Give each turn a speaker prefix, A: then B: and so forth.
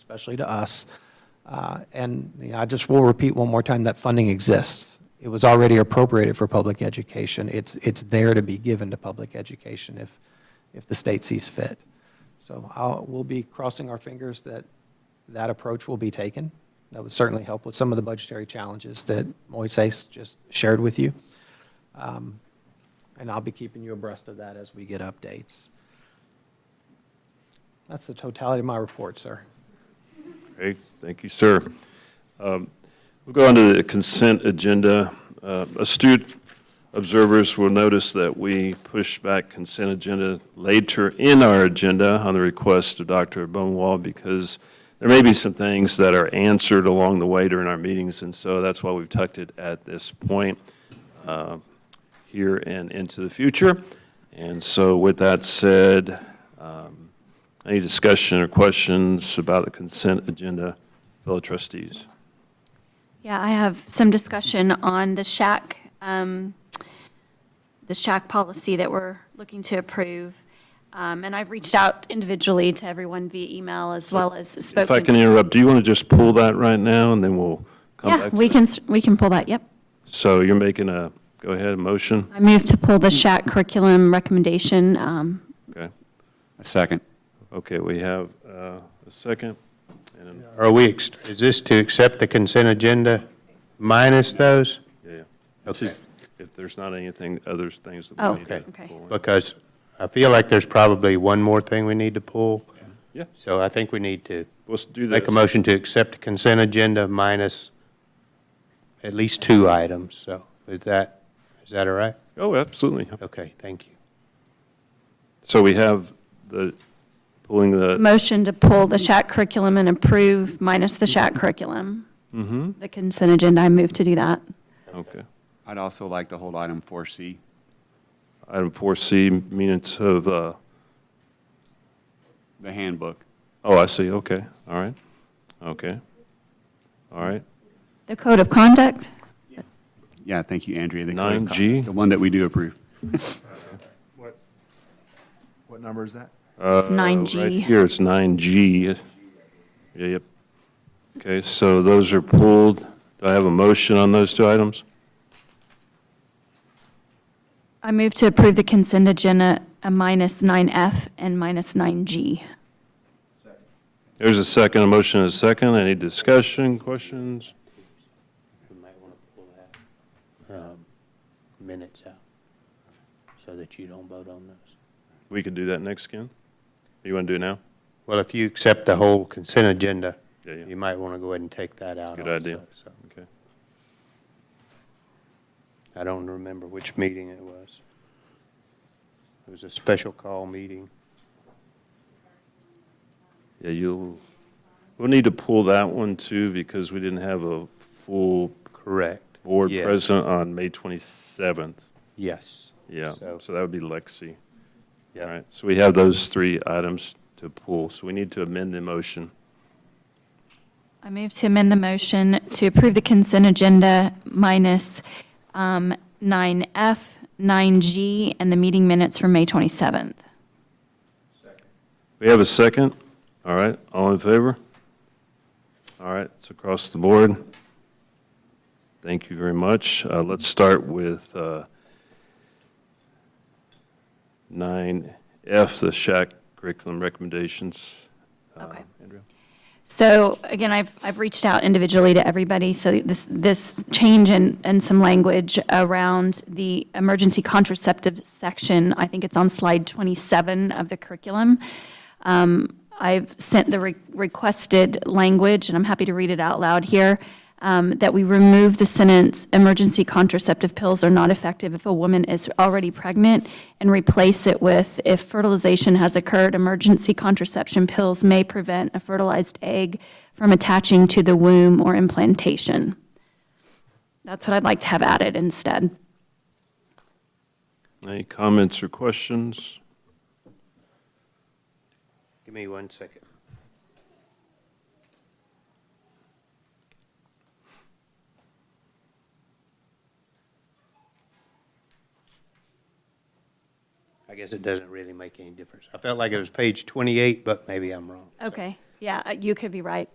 A: especially to us. Uh, And you know, I just will repeat one more time, that funding exists. It was already appropriated for public education. It's, it's there to be given to public education if, if the state sees fit. So I'll, we'll be crossing our fingers that that approach will be taken. That would certainly help with some of the budgetary challenges that Moises just shared with you. Um, And I'll be keeping you abreast of that as we get updates. That's the totality of my report, sir.
B: Okay, thank you, sir. Um, We'll go on to the consent agenda. Uh, Astute observers will notice that we push back consent agenda later in our agenda on the request of Dr. Bonewall because there may be some things that are answered along the way during our meetings, and so that's why we've tucked it at this point uh, here and into the future. And so with that said, any discussion or questions about the consent agenda, fellow trustees?
C: Yeah, I have some discussion on the shack, um, the shack policy that we're looking to approve. Um, And I've reached out individually to everyone via email as well as spoken.
B: If I can interrupt, do you want to just pull that right now, and then we'll come
C: Yeah,
B: back? to
C: we
B: it?
C: can, s- we can pull that, yep.
B: So you're making a, go ahead, a motion?
C: I move to pull the shack curriculum recommendation. um,
B: Okay,
D: A second.
B: okay, we have uh, a second. and an-
E: Are we, ex- is this to accept the consent agenda minus those?
B: yeah, yeah. This
E: Okay.
B: is- If there's not anything, other things that
C: Oh,
B: we need to
C: okay.
B: pull in.
E: Because I feel like there's probably one more thing we need to pull.
B: Yeah,
E: So I think we need to
B: let's do this.
E: make a motion to accept the consent agenda minus at least two items. So is that, is that all right?
B: Oh, absolutely.
E: Okay, thank you.
B: So we have the, pulling the,
C: Motion to pull the shack curriculum and approve minus the shack curriculum. The consent agenda, I move to do that.
B: mm-hmm, okay.
D: I'd also like to hold item 4C.
B: Item 4C, minutes of uh,
D: The handbook.
B: Oh, I see, okay, all right, okay, all right,
C: The code of conduct?
D: Yeah, thank you, Andrea. The
B: Nine
D: code-
B: G.
D: The one that we do approve.
F: What, what number is that?
C: It's
B: Uh, right
C: 9G.
B: here, it's nine G. Yeah, yep. Okay, so those are pulled, do I have a motion on those two items?
C: I move to approve the consent agenda, uh, minus 9F and minus 9G.
B: There's a second, a motion and a second, any discussion, questions?
E: um, Minutes out, so that you don't vote on those.
B: We could do that next, Ken? You want to do it now?
E: Well, if you accept the whole consent agenda,
B: Yeah, yeah.
E: you might want to go ahead and take that out.
B: Good idea.
E: also, so.
B: Okay,
E: I don't remember which meeting it was. It was a special call meeting.
B: yeah, you'll, we'll need to pull that one too, because we didn't have a full
E: Correct.
B: board
E: Yes.
B: present on May twenty-seventh.
E: Yes.
B: Yeah,
E: So-
B: so that would be Lexi. All
E: Yeah.
B: right, so we have those three items to pull, so we need to amend the motion.
C: I move to amend the motion to approve the consent agenda minus um, 9F, 9G, and the meeting minutes from May 27th.
B: We have a second? All right, all in favor? All right, it's across the board. Thank you very much. Uh, Let's start with uh, 9F, the shack curriculum recommendations. Uh,
C: Okay.
B: Andrea?
C: So again, I've, I've reached out individually to everybody, so this, this change in, in some language around the emergency contraceptive section, I think it's on slide 27 of the curriculum. Um, I've sent the re- requested language, and I'm happy to read it out loud here, um, that we remove the sentence, "Emergency contraceptive pills are not effective if a woman is already pregnant," and replace it with, "If fertilization has occurred, emergency contraception pills may prevent a fertilized egg from attaching to the womb or implantation." That's what I'd like to have added instead.
B: Any comments or questions?
E: Give me one second. I guess it doesn't really make any difference. I felt like it was page 28, but maybe I'm wrong.
C: Okay. Yeah, uh, you could be right.